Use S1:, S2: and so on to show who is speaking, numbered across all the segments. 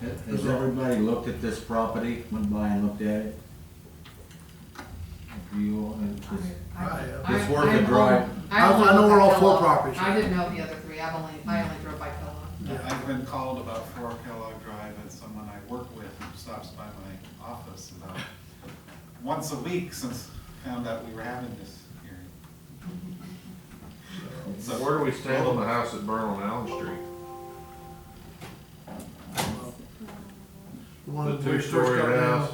S1: Has- Has everybody looked at this property, went by and looked at it? Do you, all- and
S2: I-
S1: this-
S2: I-
S3: I-
S1: it's
S2: I-
S1: worth a
S2: I'm
S1: drive.
S2: on-
S3: I-
S2: I'm
S3: I
S2: on
S3: know we're all
S2: Pella.
S3: four properties.
S2: I didn't know the other three, I've only, I only drove by Pella.
S4: Yeah, I've been called about four Kellogg Drive and someone I work with who stops by my office about once a week since found out we were having this hearing.
S5: So where do we stand on the house that burned on Allen Street?
S3: The one
S5: The
S3: when we first
S5: two-story
S3: started out-
S5: house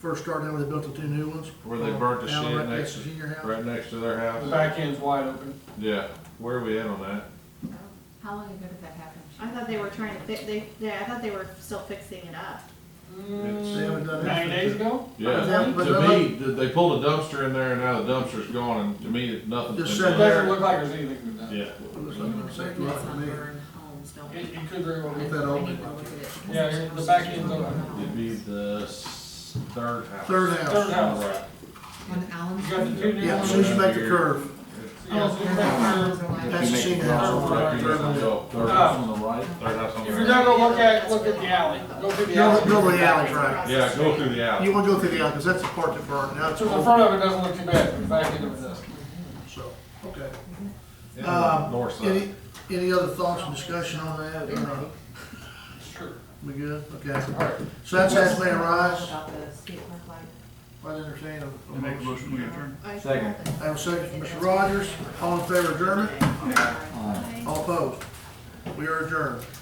S3: First started out, they built the two new ones.
S5: where they burnt the
S3: Down
S5: shit
S3: right
S5: next,
S3: to Senior house.
S5: right next to their
S6: The
S5: house?
S6: back end's wide open.
S5: Yeah, where are we at on that?
S2: How long ago did that happen?
S7: I thought they were trying to fix, they, they, I thought they were still fixing it up.
S3: They haven't done that.
S6: Nine days ago?
S5: Yeah,
S3: Yeah, but
S5: to
S3: none
S5: me, th- they pulled a dumpster in there and now the dumpster's gone and to me, nothing's
S3: Just
S5: been
S6: It
S3: said-
S5: done.
S6: doesn't look like there's anything we've done.
S5: Yeah.
S3: Looks like a safe lot to me.
S2: Sunburned homes don't.
S6: It, it could very well
S3: With
S6: be.
S3: that
S2: I
S3: old
S2: need to
S3: one.
S2: look at it because
S6: Yeah,
S2: it's-
S6: the back end's open.
S5: It'd be the s- third house.
S3: Third
S6: Third
S3: house.
S6: house.
S5: Right.
S2: On Allen
S6: You got the
S2: Street.
S6: two new
S3: Yeah, as
S6: ones.
S3: soon as you make the curve.
S6: Yeah, so you make your-
S1: If you
S3: That's the
S1: make
S3: senior
S1: drive,
S3: house.
S5: Right,
S3: Right,
S5: third
S3: third one.
S5: house.
S4: Uh,
S1: Third house on the right,
S5: Third house on
S6: If
S5: the
S6: you're
S5: right.
S6: gonna go look at, look at the alley, go through the
S3: Go,
S6: alley.
S3: go to the alley, right.
S5: Yeah, go through the
S3: You
S5: alley.
S3: wanna go through the alley, cause that's the part that burned, now it's
S6: So the
S3: over,
S6: front of it doesn't look too bad, but the back end of it does.
S3: so, okay.
S5: Yeah,
S3: Um,
S5: North side.
S3: Any, any other thoughts and discussion on that, or not?
S6: It's true.
S3: We good? Okay.
S6: All right.
S3: So that's as may arise.
S2: About the skate park light. Oh,
S3: I entertain a- a
S4: Make a
S3: motion.
S4: motion to adjourn.
S1: Second.
S3: I have a second from Mr. Rogers. All in favor of adjournment?
S1: Aye.
S3: All opposed? We are adjourned.